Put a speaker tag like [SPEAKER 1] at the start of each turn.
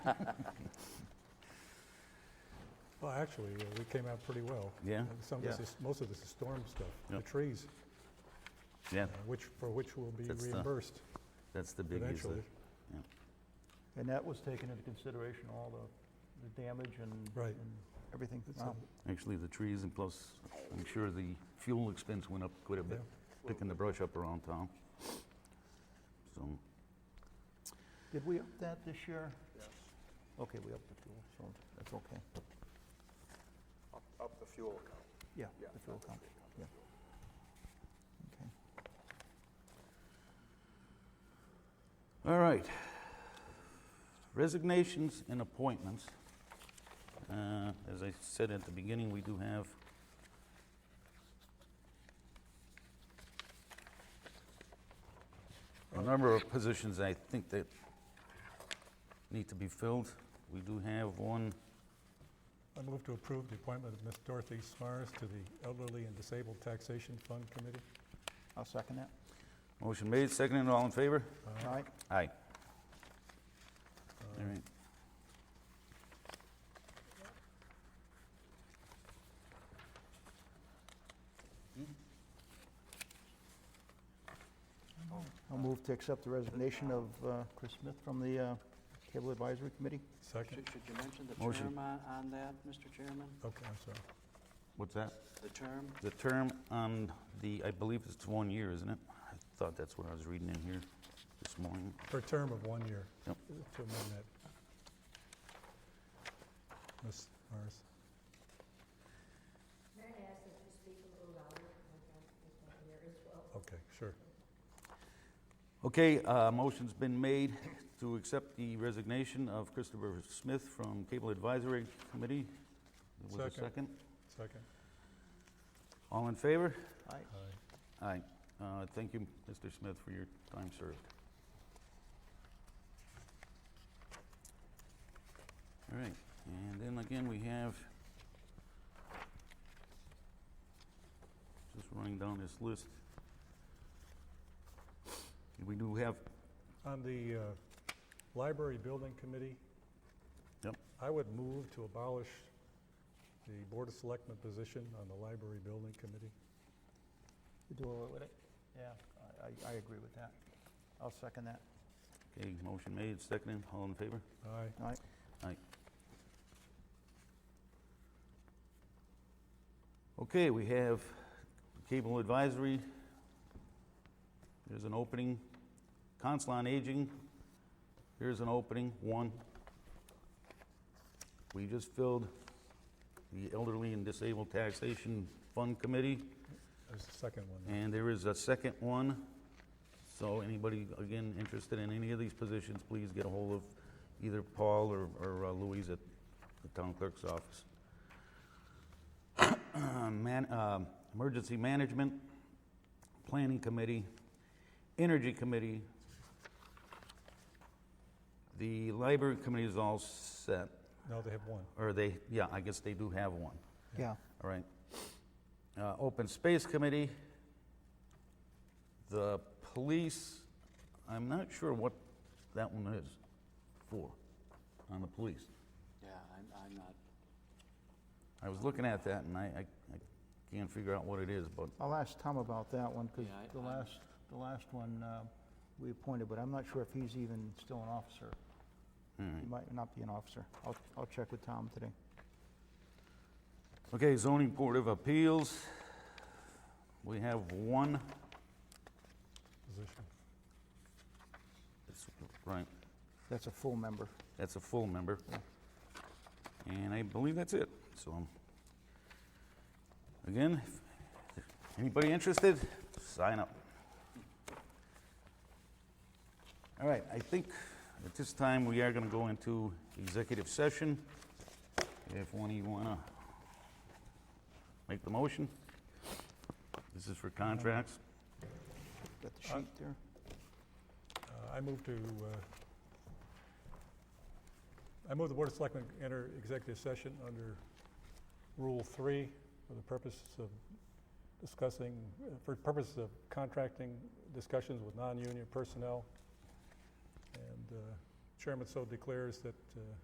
[SPEAKER 1] Well, actually, uh, we came out pretty well.
[SPEAKER 2] Yeah?
[SPEAKER 1] Uh, Some of this
[SPEAKER 3] Yeah.
[SPEAKER 1] is, most of this is storm stuff,
[SPEAKER 2] Yeah.
[SPEAKER 1] the trees,
[SPEAKER 2] Yeah,
[SPEAKER 1] uh, which, for which will be
[SPEAKER 2] That's the
[SPEAKER 1] reimbursed
[SPEAKER 2] that's the big issue.
[SPEAKER 1] eventually.
[SPEAKER 3] And that was taken into consideration, all the, the damage and.
[SPEAKER 1] Right.
[SPEAKER 3] and Everything. Um,
[SPEAKER 1] It's
[SPEAKER 3] Wow.
[SPEAKER 2] Uh, Actually, the trees and plus, I'm sure the fuel expense went up quite a
[SPEAKER 1] Yeah.
[SPEAKER 2] bit, picking the brush up around town. So,
[SPEAKER 3] Did we up that this year? Okay, we upped the fuel, so that's okay.
[SPEAKER 4] Up, up the fuel account.
[SPEAKER 3] Yeah,
[SPEAKER 4] Yeah,
[SPEAKER 3] the fuel account, yeah. Okay.
[SPEAKER 2] all right. Resignations and appointments. Uh, As I said at the beginning, we do have a number of positions I think that need to be filled. We do have one
[SPEAKER 1] I move to approve the appointment of Ms. Dorothy Smars to the Elderly and Disabled Taxation Fund Committee.
[SPEAKER 3] I'll second that.
[SPEAKER 2] Motion made, seconded, all in favor?
[SPEAKER 1] Uh,
[SPEAKER 3] All right,
[SPEAKER 2] Aye.
[SPEAKER 1] uh,
[SPEAKER 2] All right.
[SPEAKER 3] I'll move to accept the resignation of uh, Chris Smith from the uh, Cable Advisory Committee.
[SPEAKER 1] Second,
[SPEAKER 4] Should, should you mention the
[SPEAKER 2] Motion.
[SPEAKER 4] term on, on that, Mr. Chairman?
[SPEAKER 1] okay, I'm sorry.
[SPEAKER 2] What's that?
[SPEAKER 4] The term?
[SPEAKER 2] The term on the, I believe it's one year, isn't it? I thought that's what I was reading in here this morning.
[SPEAKER 1] For a term of one year.
[SPEAKER 2] Yep.
[SPEAKER 1] To amend that. Ms. Smars. Okay, sure.
[SPEAKER 2] Okay, uh, motion's been made to accept the resignation of Christopher Smith from Cable Advisory Committee. Was there a
[SPEAKER 1] Second.
[SPEAKER 2] second?
[SPEAKER 1] Second.
[SPEAKER 2] All in favor?
[SPEAKER 3] Aye.
[SPEAKER 1] Aye.
[SPEAKER 2] Aye. Uh, Thank you, Mr. Smith, for your time served. All right, and then again, we have, just running down this list. We do have,
[SPEAKER 1] On the uh, Library Building Committee?
[SPEAKER 2] Yep.
[SPEAKER 1] I would move to abolish the Board of Selectmen position on the Library Building Committee.
[SPEAKER 3] You do away with it? Yeah, I- I, I agree with that. I'll second that.
[SPEAKER 2] okay, motion made, seconded, all in favor?
[SPEAKER 1] Aye.
[SPEAKER 3] All right,
[SPEAKER 2] Okay, we have Cable Advisory. There's an opening. Council on Aging, here's an opening, one. We just filled the Elderly and Disabled Taxation Fund Committee,
[SPEAKER 1] There's the second one.
[SPEAKER 2] and there is a second one. So anybody, again, interested in any of these positions, please get a hold of either Paul or- or uh, Louise at the town clerk's office. Man- um, Emergency Management, Planning Committee, Energy Committee. The Library Committee is all set,
[SPEAKER 1] No, they have one.
[SPEAKER 2] or they, yeah, I guess they do have one.
[SPEAKER 3] yeah,
[SPEAKER 2] All right. Uh, Open Space Committee, the police, I'm not sure what that one is for, on the police.
[SPEAKER 4] Yeah, I'm, I'm not,
[SPEAKER 2] I was looking at that and I, I I can't figure out what it is, but
[SPEAKER 3] I'll ask Tom about that one, because
[SPEAKER 4] Yeah, I-
[SPEAKER 3] the
[SPEAKER 4] I'm-
[SPEAKER 3] last, the last one uh, we appointed, but I'm not sure if he's even still an officer.
[SPEAKER 2] all right.
[SPEAKER 3] He might not be an officer. I'll, I'll check with Tom today.
[SPEAKER 2] Okay, zoning board of appeals. We have one,
[SPEAKER 1] Position.
[SPEAKER 2] it's- right,
[SPEAKER 3] That's a full member.
[SPEAKER 2] that's a full member. And I believe that's it, so. um, Again, if anybody interested, sign up. All right, I think at this time, we are gonna go into executive session. If one of you wanna make the motion. This is for contracts.
[SPEAKER 3] Got the
[SPEAKER 1] Uh,
[SPEAKER 3] sheet there?
[SPEAKER 1] Uh, I move to, uh, I move the Board of Selectmen enter executive session under Rule 3 for the purpose of discussing, uh, for purposes of contracting discussions with non-union personnel and uh, chairman so declares that uh,